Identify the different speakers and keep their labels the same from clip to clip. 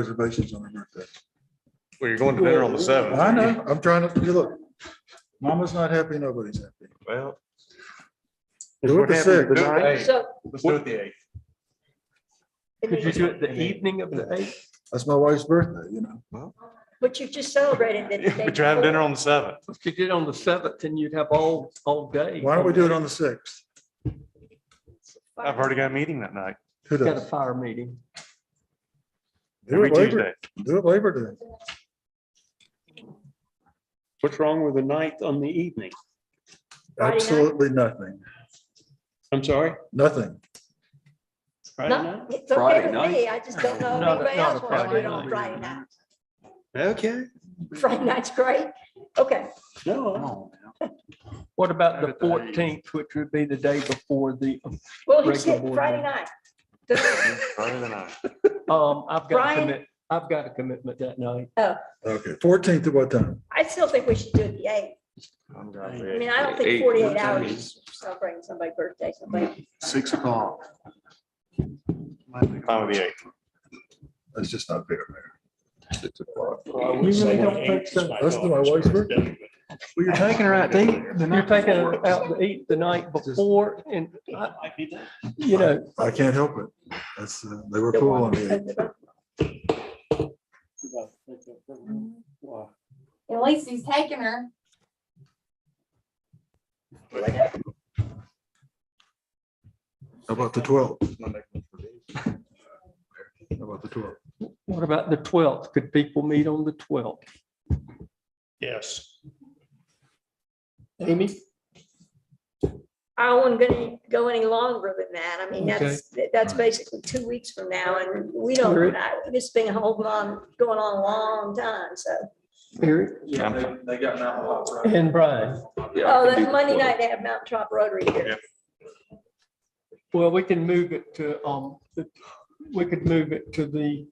Speaker 1: reservations on her birthday.
Speaker 2: Well, you're going to dinner on the seventh.
Speaker 1: I know, I'm trying to, you look, mama's not happy, nobody's happy.
Speaker 2: Well.
Speaker 1: Do it the
Speaker 2: Do
Speaker 1: sixth.
Speaker 2: it the eighth.
Speaker 3: So
Speaker 2: Let's do it the eighth.
Speaker 4: Could you do it the evening of the eighth?
Speaker 1: That's my wife's birthday, you know.
Speaker 3: what you just celebrated that.
Speaker 2: Yeah, But you're having dinner on the seventh.
Speaker 4: Could you do it on the seventh and you'd have all, all day?
Speaker 1: Why don't we do it on the sixth?
Speaker 2: I've already got a meeting that night,
Speaker 1: Who
Speaker 4: Got a
Speaker 1: does?
Speaker 4: fire meeting.
Speaker 1: Do
Speaker 2: every
Speaker 1: it Labor,
Speaker 2: Tuesday.
Speaker 1: do it Labor Day.
Speaker 5: What's wrong with the ninth on the evening?
Speaker 3: Friday night?
Speaker 1: Absolutely nothing,
Speaker 5: I'm sorry?
Speaker 1: nothing.
Speaker 5: Friday night?
Speaker 3: Not- It's okay
Speaker 6: Friday
Speaker 3: with
Speaker 6: night?
Speaker 3: me. I just don't know if
Speaker 4: Not a-
Speaker 3: anybody
Speaker 4: not a
Speaker 3: else wants to do
Speaker 4: Friday
Speaker 3: it on
Speaker 4: night.
Speaker 3: Friday night.
Speaker 5: Okay,
Speaker 3: Friday night's great. Okay,
Speaker 5: no,
Speaker 4: What about the fourteenth, which would be the day before the,
Speaker 3: well, he
Speaker 4: Regular
Speaker 3: said
Speaker 4: board
Speaker 3: Friday
Speaker 4: meeting.
Speaker 3: night.
Speaker 2: Friday the ninth.
Speaker 4: um, I've got a
Speaker 3: Brian?
Speaker 4: commit, I've got a commitment that night.
Speaker 1: Okay, fourteenth at what time?
Speaker 3: I still think we should do it the eighth.
Speaker 2: I'm
Speaker 3: I
Speaker 2: driving.
Speaker 3: mean, I don't think
Speaker 6: Eight,
Speaker 3: forty-eight
Speaker 6: what time
Speaker 3: hours
Speaker 6: is
Speaker 3: is celebrating somebody's birthday, somebody.
Speaker 6: Six o'clock.
Speaker 2: Time of the eighth.
Speaker 1: That's just not fair.
Speaker 4: You really don't think so?
Speaker 1: That's my wife's birthday.
Speaker 2: Well, you're taking her out to eat.
Speaker 4: You're taking her out to eat the night before and, I- you know,
Speaker 1: I can't help it. That's, uh, they were cool on the eighth.
Speaker 7: At least he's taking her.
Speaker 1: How about the twelfth? How about the twelfth?
Speaker 4: what about the twelfth? Could people meet on the twelfth?
Speaker 5: yes.
Speaker 4: Amy?
Speaker 3: I wasn't gonna go any longer than that. I mean, that's, that's basically two weeks from now and we don't,
Speaker 4: Sure.
Speaker 3: I- this thing holding on, going on a long time, so.
Speaker 4: Eric?
Speaker 6: Yeah,
Speaker 4: And Brian?
Speaker 6: Yeah, I
Speaker 3: Oh,
Speaker 6: can do
Speaker 3: that's
Speaker 6: the
Speaker 3: Monday
Speaker 6: 12th.
Speaker 3: night, they have Mountain Top Rotary here.
Speaker 4: Well, we can move it to, um, the- we could move it to the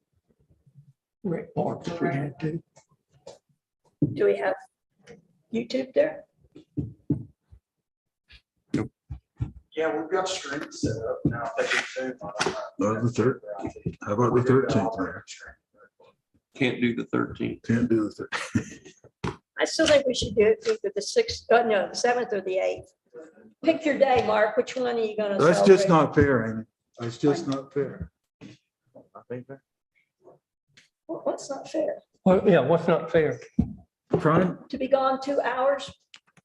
Speaker 4: rec park if we had to.
Speaker 3: Do we have YouTube there?
Speaker 8: Yeah, we've got streaming set up now. I think it's Zoom on it.
Speaker 1: Uh, the third, how about the thirteenth, Mayor?
Speaker 6: Can't do the thirteenth.
Speaker 1: Can't do the third.
Speaker 3: I still think we should do it either the sixth, uh, no, the seventh or the eighth. Pick your day, Mark. Which one are you gonna
Speaker 1: That's just
Speaker 3: celebrate?
Speaker 1: not fair, Amy. That's just not fair.
Speaker 3: What- What's not fair?
Speaker 4: Well, yeah, what's not fair?
Speaker 1: Trying,
Speaker 3: To be gone two hours?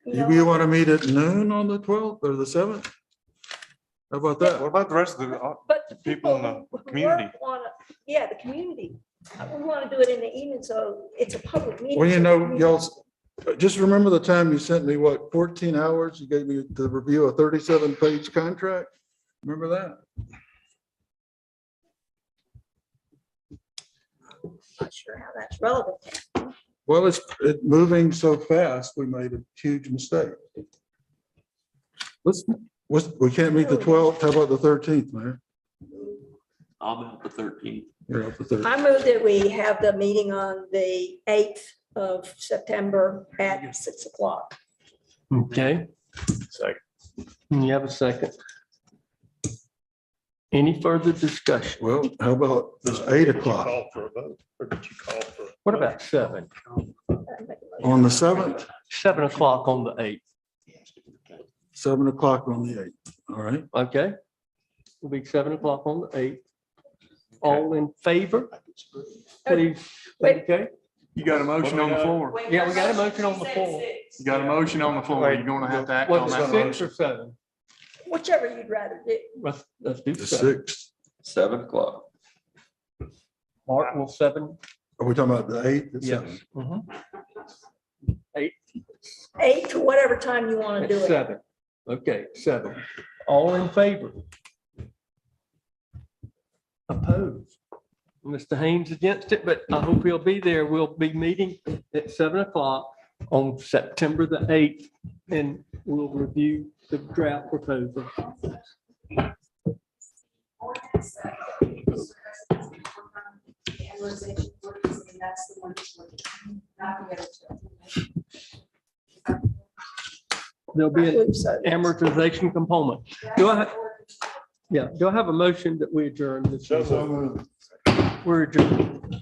Speaker 3: you
Speaker 1: you,
Speaker 3: know?
Speaker 1: you want to meet at noon on the twelfth or the seventh? How about
Speaker 2: What
Speaker 1: that?
Speaker 2: about the rest of the, uh,
Speaker 3: But
Speaker 2: the
Speaker 3: the
Speaker 2: people
Speaker 3: people
Speaker 2: in the
Speaker 3: who work
Speaker 2: community?
Speaker 3: wanna- Yeah, the community. We want to do it in the evening, so it's a public meeting.
Speaker 1: Well, you
Speaker 3: so
Speaker 1: know,
Speaker 3: community-
Speaker 1: y'all, just remember the time you sent me, what, fourteen hours? You gave me to review a thirty-seven page contract? Remember that?
Speaker 3: Not sure how that's relevant.
Speaker 1: Well, it's, it moving so fast, we made a huge mistake. Let's, let's- we can't meet the twelfth. How about the thirteenth, Mayor?
Speaker 6: I'm out the thirteenth.
Speaker 1: You're up the thirteenth.
Speaker 3: I move that we have the meeting on the eighth of September at six o'clock.
Speaker 4: Okay,
Speaker 2: Second.
Speaker 4: you have a second. Any further discussion?
Speaker 1: Well, how about eight o'clock
Speaker 5: Call for a vote, or did you call for?
Speaker 4: What about seven?
Speaker 1: on the seventh,
Speaker 4: Seven o'clock on the eighth,
Speaker 1: seven o'clock on the eighth, all right?
Speaker 4: okay? It'll be seven o'clock on the eighth. All in favor? Please,
Speaker 3: Wait.
Speaker 4: okay?
Speaker 9: You got a motion on the floor.
Speaker 4: Yeah, we got a motion on the floor.
Speaker 9: You got a motion on the floor. You're gonna have to act on
Speaker 4: Was
Speaker 9: that
Speaker 4: it six or
Speaker 9: motion.
Speaker 4: seven?
Speaker 3: Whichever you'd rather do.
Speaker 4: Let's, let's do
Speaker 1: The
Speaker 4: seven.
Speaker 1: sixth,
Speaker 6: Seven o'clock.
Speaker 4: Mark will seven,
Speaker 1: are we talking about the eighth? at
Speaker 4: yes.
Speaker 1: seven?
Speaker 4: Mhm.
Speaker 3: eight to whatever time you want to
Speaker 4: At
Speaker 3: do it.
Speaker 4: seven. Okay, seven. All in favor? Opposed? Mr. Haynes against it, but I hope he'll be there. We'll be meeting at seven o'clock on September the eighth and we'll review the draft proposal. There'll be an amortization component. Do I, yeah, do I have a motion that we adjourn this? meeting? We're adjourned.